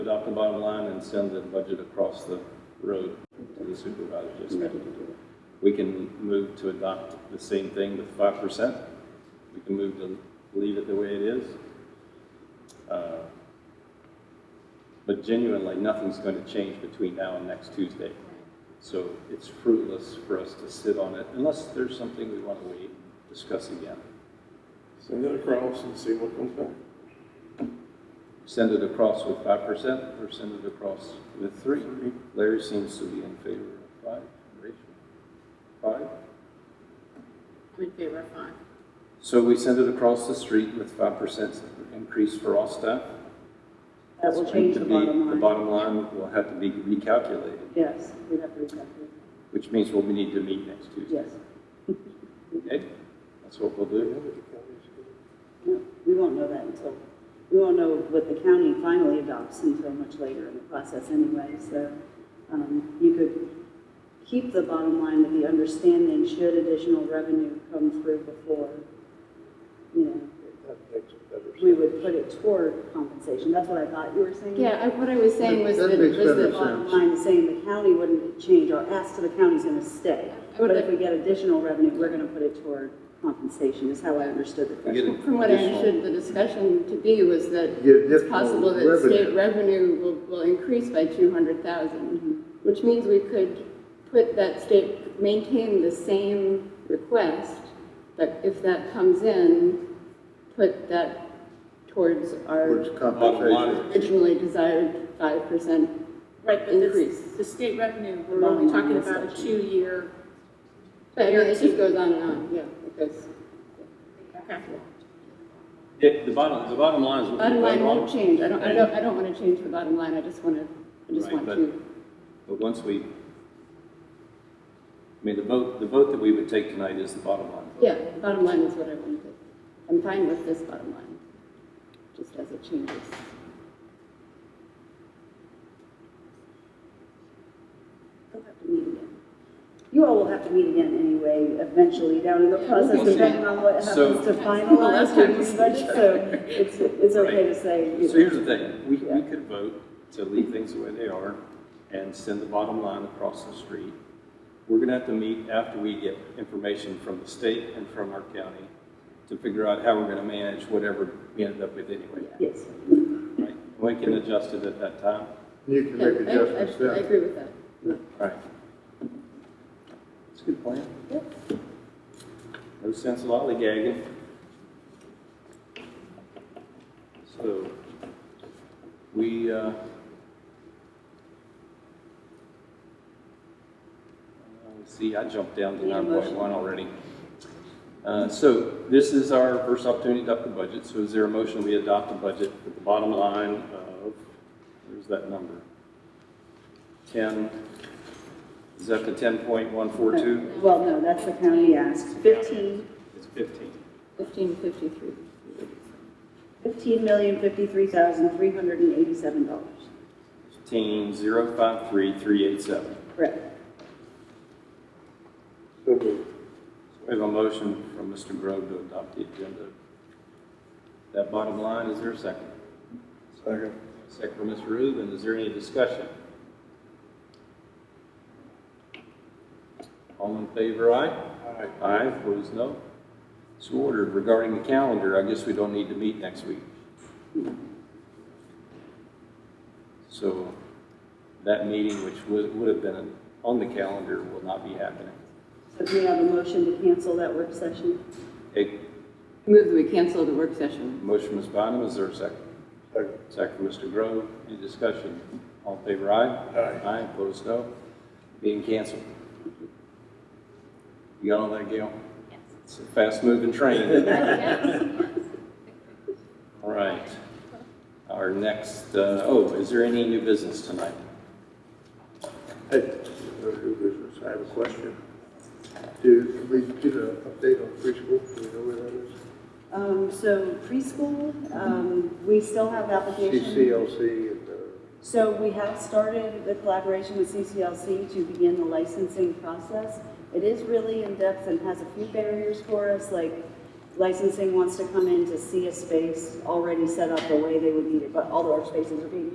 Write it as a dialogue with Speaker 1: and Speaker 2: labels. Speaker 1: adopt the bottom line and send the budget across the road to the supervisors. Just
Speaker 2: I'm ready to do it.
Speaker 1: We can move to adopt the same thing with five percent. We can move to leave it the way it is. Uh, But genuinely, nothing's going to change between now and next Tuesday. So it's fruitless for us to sit on it unless there's something we want to wait, and discuss again.
Speaker 3: Send it across and see what comes back.
Speaker 1: Send it across with five percent or send it across with three. Larry seems to be in favor of five. Rachel? Five?
Speaker 2: I'm in favor of five.
Speaker 1: So we send it across the street with five percent increase for all staff.
Speaker 4: That will
Speaker 1: It's
Speaker 4: change
Speaker 1: to
Speaker 4: the
Speaker 1: be- The
Speaker 4: bottom line.
Speaker 1: bottom line will have to be recalculated,
Speaker 4: Yes, we have to recalculate.
Speaker 1: which means we'll need to meet next Tuesday.
Speaker 4: Yes.
Speaker 1: Okay, that's what we'll do.
Speaker 4: No, We won't know that until, we won't know what the county finally adopts until much later in the process anyway. So um, you could keep the bottom line with the understanding should additional revenue come through before, you know, we would put it toward compensation. That's what I thought you were saying.
Speaker 2: Yeah, I- what I was saying
Speaker 5: That-
Speaker 2: was
Speaker 5: that
Speaker 2: that,
Speaker 5: makes
Speaker 2: was the
Speaker 5: better
Speaker 2: bottom
Speaker 6: um,
Speaker 5: sense.
Speaker 2: line, saying the county wouldn't change, our ask to the county's gonna stay.
Speaker 4: would
Speaker 2: But if
Speaker 4: like-
Speaker 2: we get additional revenue, we're gonna put it toward compensation, is how I understood the
Speaker 1: We get
Speaker 2: question.
Speaker 1: a-
Speaker 4: From what I
Speaker 1: additional-
Speaker 4: understood the discussion to be was that
Speaker 5: Get
Speaker 4: it's
Speaker 5: additional
Speaker 4: possible that
Speaker 5: revenue.
Speaker 4: state revenue will, will increase by two hundred thousand,
Speaker 6: Which means we could put that state, maintain the same request, but if that comes in, put that towards
Speaker 5: Towards
Speaker 6: our
Speaker 1: Bottom
Speaker 5: compensation.
Speaker 1: line,
Speaker 6: originally desired five percent.
Speaker 2: Right, but this,
Speaker 6: Increase.
Speaker 2: the state revenue, we're
Speaker 4: Bottom
Speaker 2: only
Speaker 4: line
Speaker 2: talking
Speaker 4: is
Speaker 2: about a
Speaker 4: that.
Speaker 2: two-year,
Speaker 6: But I mean, it just goes on and on, yeah, it goes.
Speaker 2: okay.
Speaker 1: it- the bottom, the bottom line is what we
Speaker 6: Bottom line
Speaker 1: vote on.
Speaker 6: won't change, I don't, I don't, I don't wanna change the bottom line, I just wanna, I just
Speaker 1: Right,
Speaker 6: want
Speaker 1: but-
Speaker 6: to.
Speaker 1: But once we, I mean, the vote, the vote that we would take tonight is the bottom line.
Speaker 6: Yeah, the bottom line is what I wanted. I'm fine with this bottom line, just as it changes.
Speaker 4: We'll have to meet again. You all will have to meet again anyway, eventually down in the process,
Speaker 1: we'll see.
Speaker 4: depending on what
Speaker 1: So-
Speaker 4: happens to finalize
Speaker 2: Last time
Speaker 4: the budget. So it's, it's okay to say, you
Speaker 1: So
Speaker 4: know,
Speaker 1: here's the thing, we, we could vote to leave things the way they are and send the bottom line across the street. We're gonna have to meet after we get information from the state and from our county to figure out how we're gonna manage whatever we end up with anyway,
Speaker 4: yes.
Speaker 1: right? We can adjust it at that time,
Speaker 5: You can
Speaker 6: Yeah,
Speaker 5: make
Speaker 6: I-
Speaker 5: adjustments
Speaker 6: I, I
Speaker 5: then.
Speaker 6: agree with that.
Speaker 1: right? It's a good plan.
Speaker 6: Yep.
Speaker 1: No sense lollygagging. So, we, uh, let's see, I jumped down to
Speaker 4: Need a
Speaker 1: nine
Speaker 4: motion.
Speaker 1: point one already. Uh, so this is our first opportunity to adopt the budget, so is there a motion we adopt the budget with the bottom line of, where's that number? Ten, is that the ten point one four two?
Speaker 4: Well, no, that's the county ask. Fifteen,
Speaker 1: It's fifteen.
Speaker 6: Fifteen fifty-three.
Speaker 4: fifteen million, fifty-three thousand, three hundred and eighty-seven dollars.
Speaker 1: Fifteen zero five three three eight seven.
Speaker 4: Correct.
Speaker 3: So moved.
Speaker 1: We have a motion from Mr. Grove to adopt the agenda. That bottom line, is there a second?
Speaker 3: Second.
Speaker 1: Second from Mr. Rubin, is there any discussion? All in favor, aye?
Speaker 3: Aye.
Speaker 1: Aye, opposed, no. So ordered. Regarding the calendar, I guess we don't need to meet next week. So that meeting, which would, would have been on the calendar, will not be happening.
Speaker 4: So can we have a motion to cancel that work session?
Speaker 1: Okay,
Speaker 6: Move that we cancel the work session.
Speaker 1: motion, Ms. Bynum, is there a second?
Speaker 3: Second.
Speaker 1: Second from Mr. Grove. Any discussion? All in favor, aye?
Speaker 3: Aye.
Speaker 1: Aye, opposed, no. Being canceled. You got all that, Gail? Yes. It's a fast-moving train. All right. Our next, uh, oh, is there any new business tonight?
Speaker 5: Hey, no new business, I have a question. Do, can we get an update on preschool? Do we know where that is?
Speaker 4: Um, so preschool, um, we still have applications.
Speaker 5: CCLC and, uh,
Speaker 4: So we have started the collaboration with CCLC to begin the licensing process. It is really in-depth and has a few barriers for us, like licensing wants to come in to see a space already set up the way they would need it, but all of our spaces are being